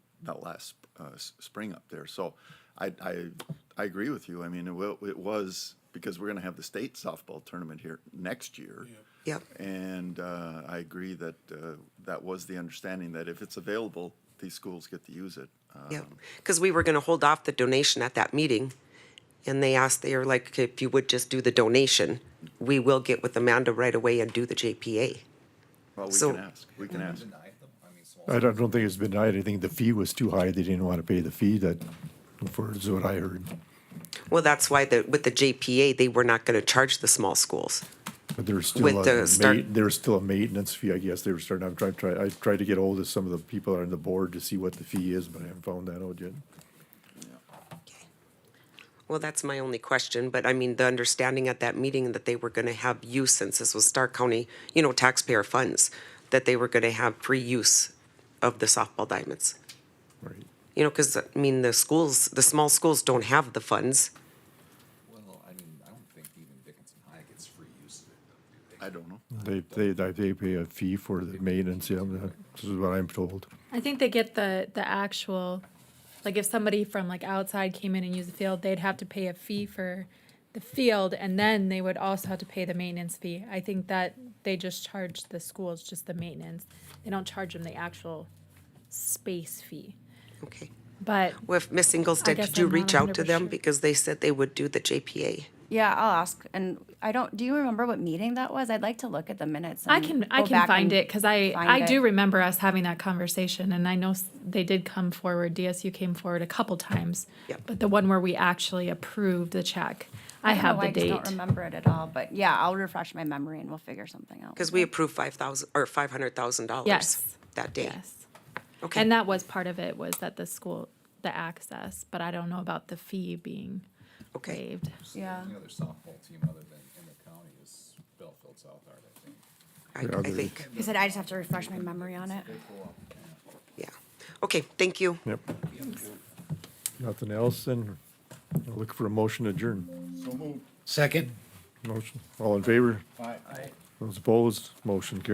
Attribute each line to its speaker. Speaker 1: that last uh, s- spring up there. So I, I, I agree with you. I mean, it, wa- it was because we're going to have the state softball tournament here next year.
Speaker 2: Yep.
Speaker 1: And uh, I agree that uh, that was the understanding that if it's available, these schools get to use it. Uh,
Speaker 2: Yeah, because we were going to hold off the donation at that meeting, and they asked, they were like, if you would just do the donation, we will get with Amanda right away and do the JPA.
Speaker 1: well, we
Speaker 2: So-
Speaker 1: can ask. We can ask.
Speaker 3: I don't, don't think it's been denied. I think the fee was too high. They didn't want to pay the fee that, for, is what I heard.
Speaker 2: Well, that's why the, with the JPA, they were not going to charge the small schools.
Speaker 3: But there's still
Speaker 2: With the
Speaker 3: a
Speaker 2: start-
Speaker 3: ma- there's still a maintenance fee, I guess. They were starting, I've tried, tried, I tried to get hold of some of the people on the board to see what the fee is, but I haven't found that out yet.
Speaker 2: Well, that's my only question, but I mean, the understanding at that meeting that they were going to have use, since this was Stark County, you know, taxpayer funds, that they were going to have free use of the softball diamonds.
Speaker 3: Right.
Speaker 2: You know, because, I mean, the schools, the small schools don't have the funds.
Speaker 4: Well, I mean, I don't think even Dickinson High gets free use of it.
Speaker 1: I don't know.
Speaker 3: They, they, they pay a fee for the maintenance, yeah, this is what I'm told.
Speaker 5: I think they get the the actual, like if somebody from like outside came in and used the field, they'd have to pay a fee for the field, and then they would also have to pay the maintenance fee. I think that they just charge the schools just the maintenance. They don't charge them the actual space fee.
Speaker 2: Okay.
Speaker 5: But
Speaker 2: With Miss Ingolstadt,
Speaker 5: guess
Speaker 2: did you
Speaker 5: I'm not
Speaker 2: reach out to
Speaker 5: 100%
Speaker 2: them
Speaker 5: sure.
Speaker 2: because they said they would do the JPA?
Speaker 6: Yeah, I'll ask. And I don't. Do you remember what meeting that was? I'd like to look at the minutes.
Speaker 5: I
Speaker 6: and
Speaker 5: can I
Speaker 6: Mm, go
Speaker 5: can
Speaker 6: back
Speaker 5: find
Speaker 6: and
Speaker 5: it because I
Speaker 6: find
Speaker 5: I do
Speaker 6: it.
Speaker 5: remember us having that conversation, and I know s- they did come forward. DSU came forward a couple times,
Speaker 2: Yep.
Speaker 5: but the one where we actually approved the check, I,
Speaker 6: don't know
Speaker 5: have
Speaker 6: why
Speaker 5: the date.
Speaker 6: I just don't remember it at all. But yeah, I'll refresh my memory and we'll figure something out.
Speaker 2: Because we approved five thousand, or five hundred thousand dollars
Speaker 5: Yes.
Speaker 2: that day.
Speaker 5: Yes.
Speaker 2: Okay.
Speaker 5: And that was part of it was that the school, the access, but I don't know about the fee being
Speaker 2: Okay.
Speaker 5: waived.
Speaker 6: Yeah.
Speaker 4: The other softball team other than in the county is Bellfield South Art, I think.
Speaker 2: I, I think,
Speaker 6: You said I just have to refresh my memory on it.
Speaker 2: yeah. Okay, thank you.
Speaker 3: Yep. Nothing else, then I'll look for a motion to adjourn.
Speaker 7: Second.
Speaker 3: Motion, all in favor?
Speaker 7: Aye.
Speaker 3: Those opposed, motion carries.